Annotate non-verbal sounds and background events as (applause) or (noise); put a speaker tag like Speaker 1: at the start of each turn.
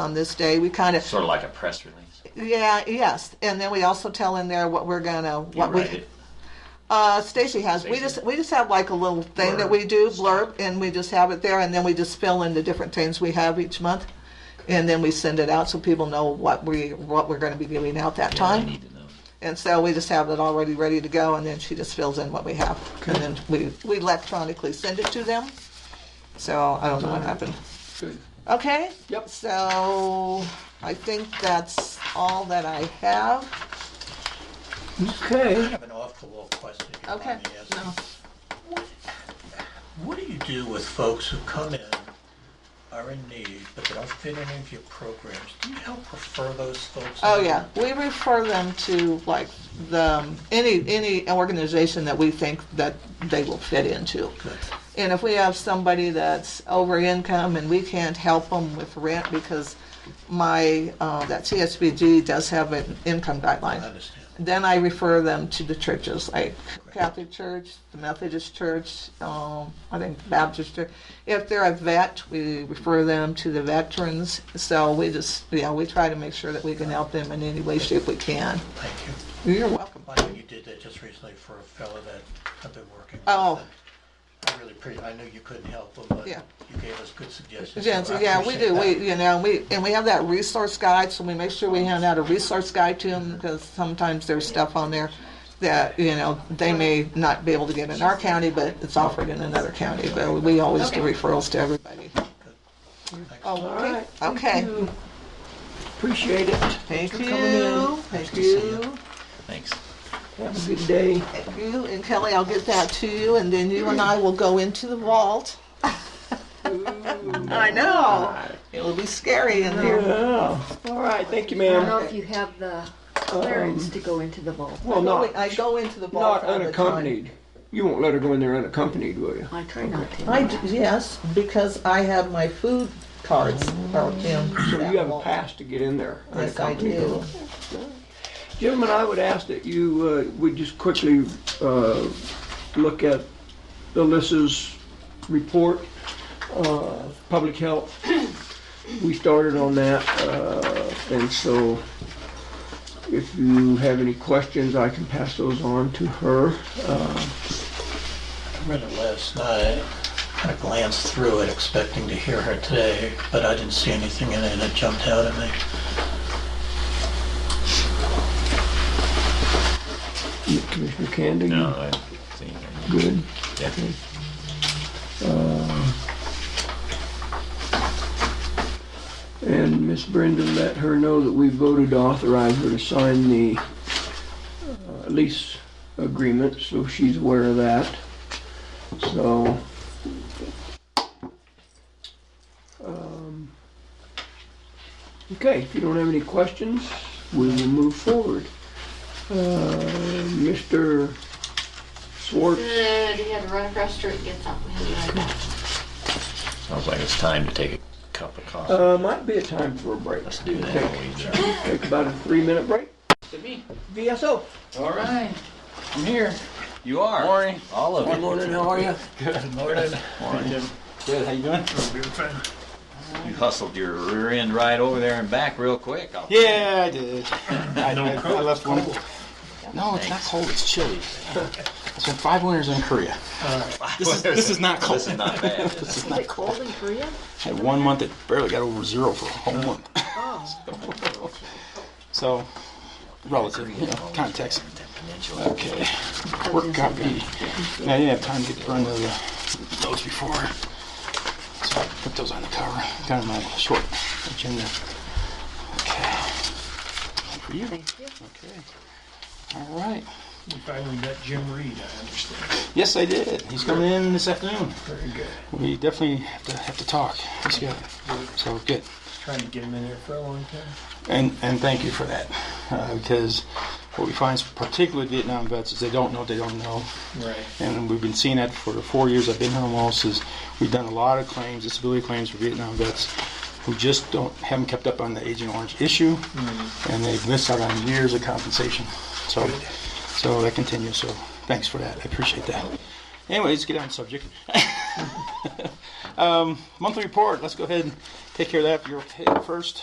Speaker 1: on this day. We kind of
Speaker 2: Sort of like a press release.
Speaker 1: yeah, yes, and then we also tell in there what we're gonna
Speaker 2: You
Speaker 1: what
Speaker 2: write
Speaker 1: we.
Speaker 2: it.
Speaker 1: Uh, Stacy has. We
Speaker 2: Stacy.
Speaker 1: just we just have like a little thing that
Speaker 2: Blurb.
Speaker 1: we do blurb, and we just have it there, and then we just fill in the different things we have each month, and then we send it out so people know what we what we're going to be giving out that
Speaker 2: Yeah, I
Speaker 1: time.
Speaker 2: need to know.
Speaker 1: And so we just have it already ready to go, and then she just fills in what we have, and then we we electronically send it to them. So I don't know what happened.
Speaker 3: Good.
Speaker 1: Okay.
Speaker 3: Yep.
Speaker 1: So I think that's all that I have.
Speaker 3: Okay.
Speaker 4: have an off the wall question. if you
Speaker 1: Okay.
Speaker 4: mind me asking.
Speaker 1: No.
Speaker 4: What do you do with folks who come in, are in need, but they don't fit any of your programs? Do you help refer those folks?
Speaker 1: Oh
Speaker 4: out?
Speaker 1: yeah, we refer them to like the um, any any organization that we think that they will fit into.
Speaker 4: Good.
Speaker 1: And if we have somebody that's over income and we can't help them with rent because my uh, that CSBG does have an income
Speaker 4: I
Speaker 1: guideline.
Speaker 4: understand.
Speaker 1: Then I refer them to the churches, like Catholic Church, the Methodist Church, um, I think Baptist Church. If they're a vet, we refer them to the veterans. So we just, you know, we try to make sure that we can help them in any way, shape we can.
Speaker 4: Thank you.
Speaker 1: You're welcome.
Speaker 4: I know you did that just recently for a fellow that I've been working with.
Speaker 1: Oh.
Speaker 4: and I really appreciate, I know you couldn't help him, but
Speaker 1: Yeah.
Speaker 4: you gave us good suggestions.
Speaker 1: Yeah,
Speaker 4: so I
Speaker 1: yeah, we
Speaker 4: appreciate
Speaker 1: do.
Speaker 4: that.
Speaker 1: We, you know, we and we have that resource guide, so we make sure we hand out a resource guide to them because sometimes there's stuff on there that you know they may not be able to get in our county, but it's offered in another county. But we always do referrals to everybody.
Speaker 4: Thanks.
Speaker 1: Oh,
Speaker 3: All
Speaker 1: okay.
Speaker 3: right. Thank
Speaker 1: Okay.
Speaker 3: you. Appreciate it.
Speaker 1: Thank
Speaker 3: Thanks for coming in.
Speaker 1: you. Thank
Speaker 4: to see
Speaker 1: you.
Speaker 2: Thanks.
Speaker 3: Have a good day.
Speaker 1: Thank you. And Kelly, I'll get that to you, and then you and I will go into the
Speaker 3: (laughs)
Speaker 1: vault. I know. It will be scary in there.
Speaker 3: Yeah. All right. Thank you,
Speaker 5: I don't know
Speaker 3: ma'am.
Speaker 5: if you have the clearance to go into the vault.
Speaker 3: Well, not
Speaker 1: I go into the vault
Speaker 3: not
Speaker 1: all the time.
Speaker 3: unaccompanied. You won't let her go in there unaccompanied, will you?
Speaker 5: I try not to.
Speaker 1: I d- yes, because I have my food cards out in.
Speaker 3: So
Speaker 1: that
Speaker 3: you have a
Speaker 1: wall.
Speaker 3: pass to get in there
Speaker 1: Yes, I
Speaker 3: unaccompanied.
Speaker 1: do.
Speaker 3: Gentlemen, I would ask that you uh, would just quickly uh, look at Alyssa's report, uh, public health. We started on that, uh, and so if you have any questions, I can pass those on to her.
Speaker 4: I read it last night. I glanced through it expecting to hear her today, but I didn't see anything in it that jumped out at me.
Speaker 3: Commissioner Candy? you
Speaker 2: No, I didn't see anything.
Speaker 3: Good.
Speaker 2: Yeah.
Speaker 3: And Miss Brenda, let her know that we voted to authorize her to sign the uh, lease agreement, so she's aware of that. So. um, Okay, if you don't have any questions, we will move forward. Uh, Mr. Swartz,
Speaker 6: Good, he had to run across the street and get something. He'll be right back.
Speaker 2: Sounds like it's time to take a cup of coffee.
Speaker 3: uh, might be a time for a break.
Speaker 2: Let's do that. while we drink.
Speaker 3: Take about a three-minute break. VSO.
Speaker 2: All right, I'm here. You are. Morning, all of you.
Speaker 3: Good morning, how are you?
Speaker 4: Good morning.
Speaker 2: Morning.
Speaker 7: Good, how you doing?
Speaker 2: You hustled your rear end right over there and back real quick. I'll-
Speaker 7: Yeah, I did. I, I, I left one. No, it's not cold. It's chilly. I spent five winters in Korea. This is, this is not cold.
Speaker 2: This is not bad. is it?
Speaker 7: This is
Speaker 5: Is
Speaker 7: not
Speaker 5: it
Speaker 7: cold.
Speaker 5: cold in Korea?
Speaker 7: I had one month that barely got over zero for a whole month. (laughs) So, relative, you know, context. Okay. Work copy. Yeah, I didn't have time to get to run to the notes before. So I put those on the cover. Got in my short agenda. Okay. One for you.
Speaker 5: Thank you.
Speaker 7: Okay. All right.
Speaker 4: We finally met Jim Reed, I understand.
Speaker 7: Yes, I did. He's coming in this afternoon.
Speaker 4: Very good.
Speaker 7: We definitely have to have to talk. Let's go. So good.
Speaker 4: Trying to get him in there for a long time.
Speaker 7: And and thank you for that, uh, because what we find, particularly Vietnam vets, is they don't know what they don't know,
Speaker 4: Right.
Speaker 7: and we've been seeing that for the four years I've been here almost. Is we've done a lot of claims, disability claims for Vietnam vets who just don't haven't kept up on the Agent Orange issue, and they've missed out on years of compensation. So so that continues. So thanks for that. I appreciate that. Anyways, get on subject. (laughs) um, monthly report. Let's go ahead and take care of that. You're okay first.